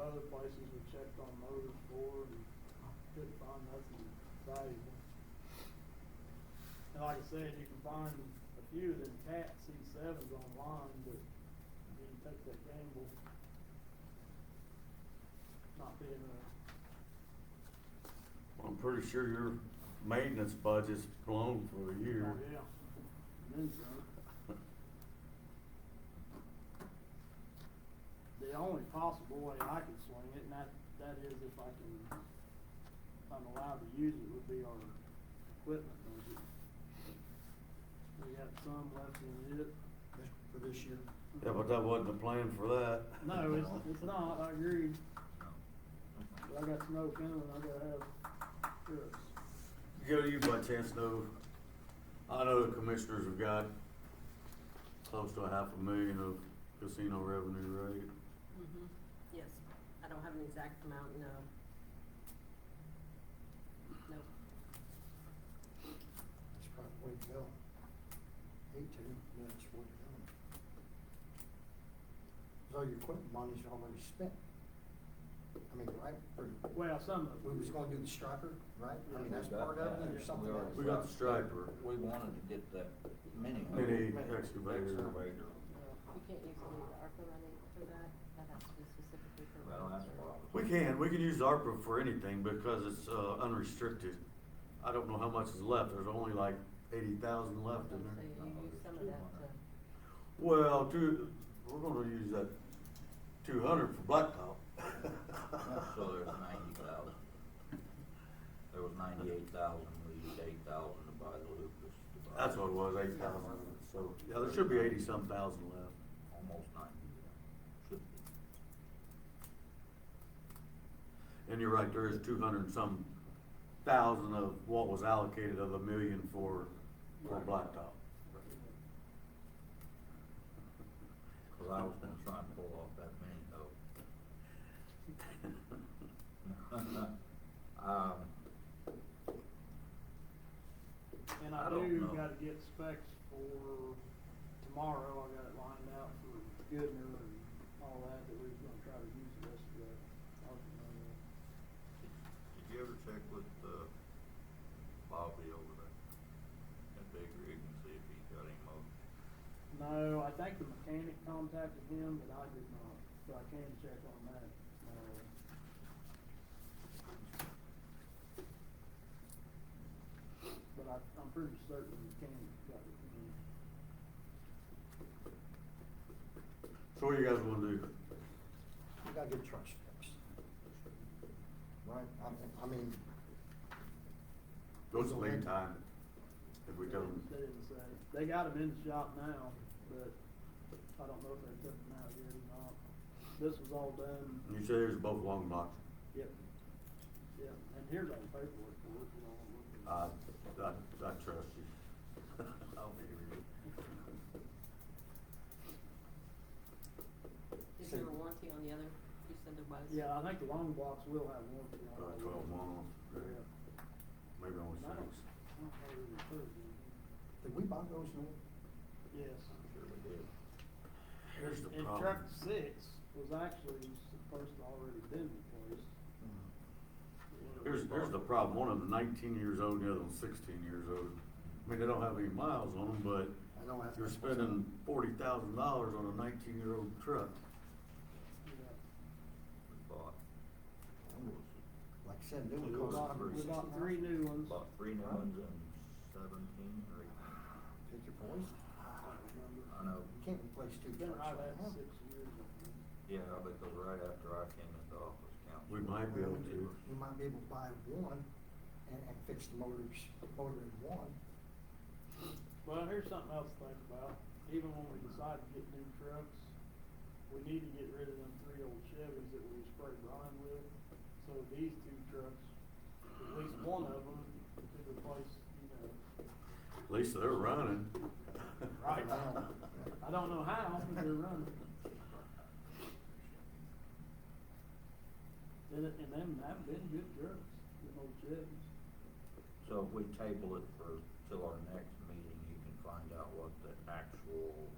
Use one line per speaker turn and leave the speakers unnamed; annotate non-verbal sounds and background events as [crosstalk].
other places we checked on motors for and couldn't find nothing valuable. And like I said, you can find a few of them cat C sevens online, but you need to take that gamble. Not being
I'm pretty sure your maintenance budget's blown for a
a,
year.
oh yeah, and then some. The only possible way I could swing it, and that, that is if I can, if I'm allowed to use it, would be our equipment budget. We got some left in it.
this- for this year.
Yeah, but that wasn't the plan for that.
No, it's, it's not, I agree, but I got snow coming, I gotta have trucks.
Joe, you by chance know, I know the commissioners have got close to a half a million of casino revenue, right?
Mhm. Yes, I don't have an exact amount, no. No,
That's probably the way to go. Hate to, but that's the way to go. So your equipment money's already spent. I mean, right, or
Well, some of
we
them.
was gonna do the striker, right? I mean, that's
Yeah.
part of it, or
Yeah.
something
We
else?
We got the striper.
We wanted to get that mini.
Mini excavator.
we
Excavator.
can't use any of the ARPA money for that, that has to be specifically for.
Well, that's a problem.
We can, we can use ARPA for anything because it's, uh, unrestricted. I don't know how much is left, there's only like eighty thousand left in
So
there.
you use some of that to,
Well, two, we're gonna use that two hundred for blacktop.
So there's ninety thousand. There was ninety-eight thousand, we used eight thousand to buy the Lucas. to buy-
That's what it was, eh? eight thousand, so, yeah, there should be eighty-some thousand left.
Almost ninety, yeah. should be.
And you're right, there is two hundred and some thousand of what was allocated of a million for, for blacktop.
Cause I was gonna try and pull off that mini though. [laughs] Um,
And
I
I
don't
do
know.
gotta get specs for tomorrow, I got it lined out for Goodner and all that, that we was gonna try to use the rest of that.
Did you ever check with, uh, Bobby over there at Big Rig and see if he's got any mowers?
No, I think the mechanic contacted him, but I did not, so I can check on that. Uh, But I, I'm pretty certain the mechanic got it from him.
[laughs] So what do you guys wanna do?
We gotta get trucks fixed. Right, I mean, I mean,
Those are lead time, if we don't.
They didn't say, they got them in the shop now, but I don't know if they took them out yet or not. This was all done,
You say there's both long blocks.
yep, yep, and here's all the paperwork for it, you know. I'm looking.
I, I, I trust you. [laughs] I'll be here.
is
So-
there a warranty on the other, you said there was?
Yeah, I think the long blocks will have warranty on
About
it.
twelve months, right? maybe only
And I don't,
six.
I don't know where they put it in.
did we buy those new?
Yes.
I'm sure we did.
Here's the
And
problem.
truck six was actually supposed to already been replaced.
Here's, here's the problem, one of them nineteen years old, the other one's sixteen years old. I mean, they don't have any miles on them, but
I know that's.
you're spending forty thousand dollars on a nineteen-year-old truck.
Yeah.
We bought,
Like I said, new
We
one costs
bought, we bought three new ones.
bought three new ones in seventeen or eighteen.
Pick your poison.
I don't remember.
I know,
You can't replace two
It's been
trucks.
right at
now.
six years, I think.
yeah, because right after I came into office, council.
We might be able to.
You might be able to buy one and, and fix the motors, motor in one.
Well, here's something else to think about. Even when we decide to get new trucks, we need to get rid of them three old Chevys that we spray brine with. So these two trucks, at least one of them could replace, you know,
At least they're running.
Right. I don't know how, but they're running. And, it- and them, that been good trucks, them old Chevys.
So if we table it for, till our next meeting, you can find out what the actual